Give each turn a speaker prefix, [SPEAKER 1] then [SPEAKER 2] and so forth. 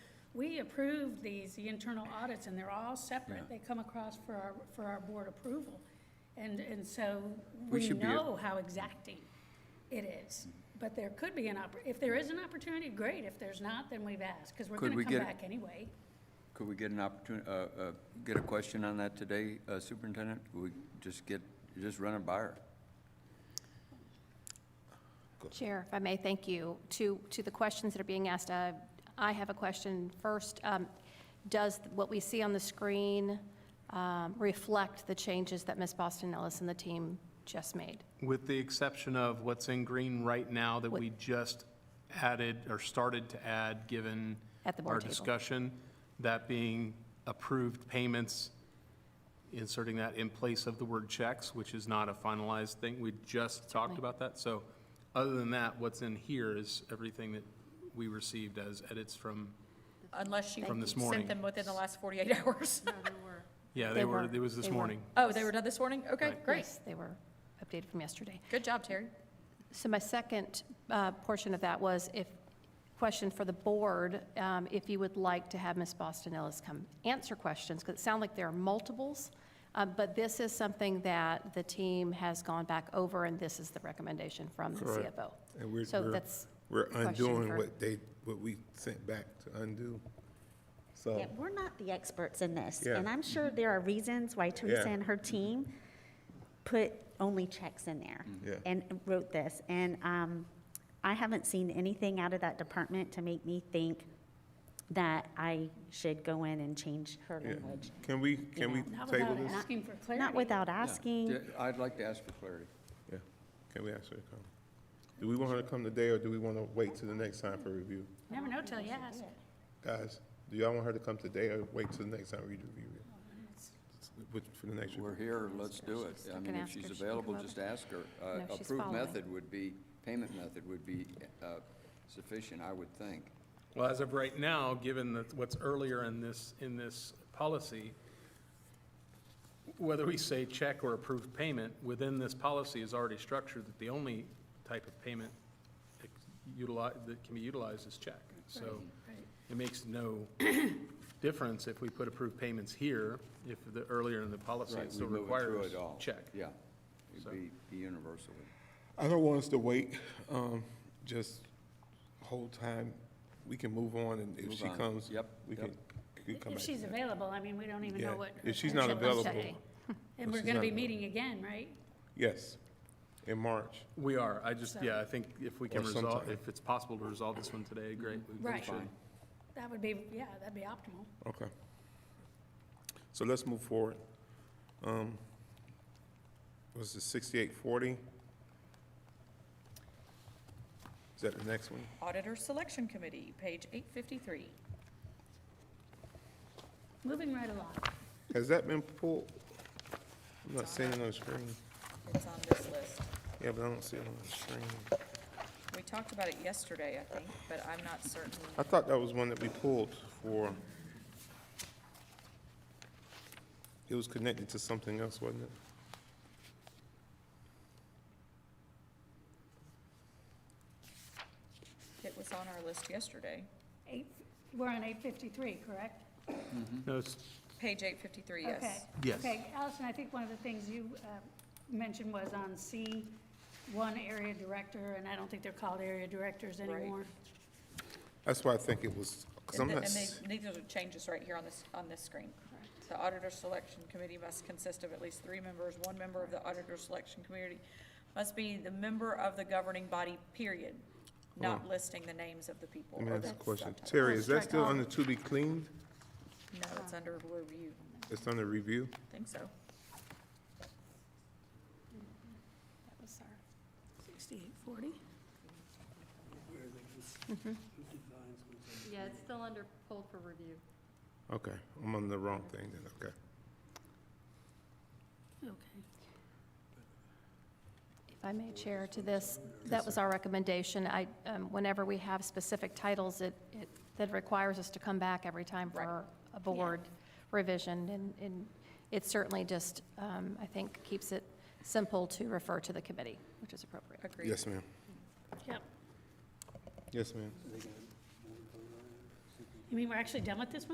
[SPEAKER 1] We approved these, the internal audits, and they're all separate.
[SPEAKER 2] Yeah.
[SPEAKER 1] They come across for our, for our board approval. And, and so
[SPEAKER 2] We
[SPEAKER 1] we
[SPEAKER 2] should be- Mm.
[SPEAKER 1] know how exacting it is. But there could be an oppor, if there is an opportunity, great. If there's not, then we've asked, because we're going
[SPEAKER 2] Could
[SPEAKER 1] to
[SPEAKER 2] we
[SPEAKER 1] come
[SPEAKER 2] get-
[SPEAKER 1] back anyway.
[SPEAKER 2] Could we get an opportunity, uh, uh, get a question on that today, uh, Superintendent? Could we just get, just run it by her?
[SPEAKER 3] Chair, if I may, thank you. To, to the questions that are being asked, uh, I have a question first. Um, Does what we see on the screen um, reflect the changes that Ms. Boston Ellis and the team just made?
[SPEAKER 4] With the exception of what's in green right now that
[SPEAKER 3] What-
[SPEAKER 4] we just added or started to add, given
[SPEAKER 3] At the board
[SPEAKER 4] our
[SPEAKER 3] table.
[SPEAKER 4] discussion, that being approved payments, inserting that in place of the word checks, which is not a finalized thing. We just talked about that. So other than that, what's in here is everything that we received as edits from,
[SPEAKER 5] Unless you
[SPEAKER 4] From this
[SPEAKER 5] sent
[SPEAKER 4] morning.
[SPEAKER 5] them within the last 48 hours.
[SPEAKER 4] yeah,
[SPEAKER 3] They
[SPEAKER 4] they were,
[SPEAKER 3] were-
[SPEAKER 4] it was this
[SPEAKER 3] they were.
[SPEAKER 4] morning.
[SPEAKER 5] Oh, they were done this morning? Okay,
[SPEAKER 4] Right.
[SPEAKER 5] great.
[SPEAKER 3] Yes, They were updated from yesterday.
[SPEAKER 5] Good job, Terry.
[SPEAKER 3] So my second uh, portion of that was if, question for the board, um, if you would like to have Ms. Boston Ellis come answer questions, because it sounds like there are multiples, uh, but this is something that the team has gone back over, and this is the recommendation from the
[SPEAKER 6] Correct.
[SPEAKER 3] CFO.
[SPEAKER 6] And we're-
[SPEAKER 3] So
[SPEAKER 6] we're-
[SPEAKER 3] that's,
[SPEAKER 6] We're
[SPEAKER 3] question for-
[SPEAKER 6] undoing what they, what we sent back to undo. So,
[SPEAKER 7] Yeah, we're not the experts in this,
[SPEAKER 6] Yeah.
[SPEAKER 7] and I'm sure there are reasons why Teresa
[SPEAKER 6] Yeah.
[SPEAKER 7] and her team put only checks in there
[SPEAKER 6] Yeah.
[SPEAKER 7] and wrote this. And um, I haven't seen anything out of that department to make me think that I should go in and change her
[SPEAKER 6] yeah.
[SPEAKER 7] language.
[SPEAKER 6] can we, can we
[SPEAKER 1] Not
[SPEAKER 6] table
[SPEAKER 1] without
[SPEAKER 6] this?
[SPEAKER 1] asking for clarity.
[SPEAKER 7] Not without asking,
[SPEAKER 2] Yeah, I'd like to ask for clarity.
[SPEAKER 6] Yeah, can we ask her to come? Do we want her to come today, or do we want to wait till the next time for review?
[SPEAKER 1] Never know till you ask.
[SPEAKER 6] Guys, do y'all want her to come today, or wait till the next time we do review? Which, for the next
[SPEAKER 2] We're
[SPEAKER 6] review?
[SPEAKER 2] here, let's do it. I
[SPEAKER 3] I
[SPEAKER 2] mean,
[SPEAKER 3] can
[SPEAKER 2] if
[SPEAKER 3] ask her
[SPEAKER 2] she's
[SPEAKER 3] if she can
[SPEAKER 2] available,
[SPEAKER 3] come
[SPEAKER 2] just
[SPEAKER 3] over.
[SPEAKER 2] ask her. Uh,
[SPEAKER 3] No, she's
[SPEAKER 2] Approved
[SPEAKER 3] following.
[SPEAKER 2] method would be, payment method would be uh, sufficient, I would think.
[SPEAKER 4] Well, as of right now, given that what's earlier in this, in this policy, whether we say check or approved payment, within this policy is already structured that the only type of payment utilize, that can be utilized is check. So it makes no difference if we put approved payments here, if the, earlier in the policy
[SPEAKER 2] Right,
[SPEAKER 4] it still
[SPEAKER 2] we move it through
[SPEAKER 4] requires
[SPEAKER 2] it all.
[SPEAKER 4] check.
[SPEAKER 2] Yeah, it'd be be universal.
[SPEAKER 6] I don't want us to wait, um, just whole time, we can move on, and if
[SPEAKER 2] Move
[SPEAKER 6] she
[SPEAKER 2] on.
[SPEAKER 6] comes,
[SPEAKER 2] Yep,
[SPEAKER 6] we
[SPEAKER 2] yep.
[SPEAKER 6] can, we can come
[SPEAKER 1] If
[SPEAKER 6] back.
[SPEAKER 1] she's available, I mean, we don't even
[SPEAKER 6] Yeah,
[SPEAKER 1] know what. her
[SPEAKER 6] if she's not
[SPEAKER 1] schedule looks like.
[SPEAKER 6] available,
[SPEAKER 1] And we're
[SPEAKER 6] she's
[SPEAKER 1] going to
[SPEAKER 6] not
[SPEAKER 1] be
[SPEAKER 6] available.
[SPEAKER 1] meeting again, right?
[SPEAKER 6] Yes, in March.
[SPEAKER 4] We are, I just, yeah, I think if we can
[SPEAKER 6] Or
[SPEAKER 4] resolve,
[SPEAKER 6] sometime.
[SPEAKER 4] if it's possible to resolve this one today, great. we- we
[SPEAKER 1] Right.
[SPEAKER 4] should.
[SPEAKER 1] That would be, yeah, that'd be optimal.
[SPEAKER 6] Okay. So let's move forward. Um, Was it sixty-eight forty? Is that the next one?
[SPEAKER 5] Auditor Selection Committee, page 853.
[SPEAKER 1] Moving right along.
[SPEAKER 6] Has that been pulled? I'm not seeing it on the screen.
[SPEAKER 5] It's on this list.
[SPEAKER 6] Yeah, but I don't see it on the screen.
[SPEAKER 5] We talked about it yesterday, I think, but I'm not certain.
[SPEAKER 6] I thought that was one that we pulled for. It was connected to something else, wasn't it?
[SPEAKER 5] It was on our list yesterday.
[SPEAKER 1] Eight, we're on eight fifty-three, correct?
[SPEAKER 4] No, it's-
[SPEAKER 5] Page 853,
[SPEAKER 1] Okay.
[SPEAKER 5] yes.
[SPEAKER 4] Yes.
[SPEAKER 1] Okay, Allison, I think one of the things you uh, mentioned was on C, one area director, and I don't think they're called area directors
[SPEAKER 5] Right.
[SPEAKER 1] anymore.
[SPEAKER 6] That's why I think it was, because I'm
[SPEAKER 5] And the-
[SPEAKER 6] not,
[SPEAKER 5] and
[SPEAKER 6] s-
[SPEAKER 5] they- these are the changes right here on this, on this screen. The auditor selection committee must consist of at least three members. One member of the auditor selection committee must be the member of the governing body, period, not listing the names of the people.
[SPEAKER 6] Hmm. let me
[SPEAKER 5] or
[SPEAKER 6] ask a
[SPEAKER 5] the
[SPEAKER 6] question.
[SPEAKER 5] subtitles.
[SPEAKER 6] Terry,
[SPEAKER 1] I'll
[SPEAKER 6] is that
[SPEAKER 1] strike
[SPEAKER 6] still
[SPEAKER 1] all.
[SPEAKER 6] under to be cleaned?
[SPEAKER 5] No, it's under review.
[SPEAKER 6] It's under review?
[SPEAKER 5] I think so.
[SPEAKER 3] that was our.
[SPEAKER 1] Sixty-eight forty?
[SPEAKER 8] Yeah, it's still under pulled for review.
[SPEAKER 6] Okay, I'm on the wrong thing then, okay.
[SPEAKER 1] Okay.
[SPEAKER 3] If I may, Chair, to this, that was our recommendation. I, um, whenever we have specific titles, it, it, that requires us to come back every time for a board revision, and, and it certainly just, um, I think, keeps it simple to refer to the committee, which is appropriate.
[SPEAKER 5] Agreed.
[SPEAKER 6] Yes, ma'am.
[SPEAKER 1] Yep.
[SPEAKER 6] Yes, ma'am.
[SPEAKER 1] You mean we're actually done with this one?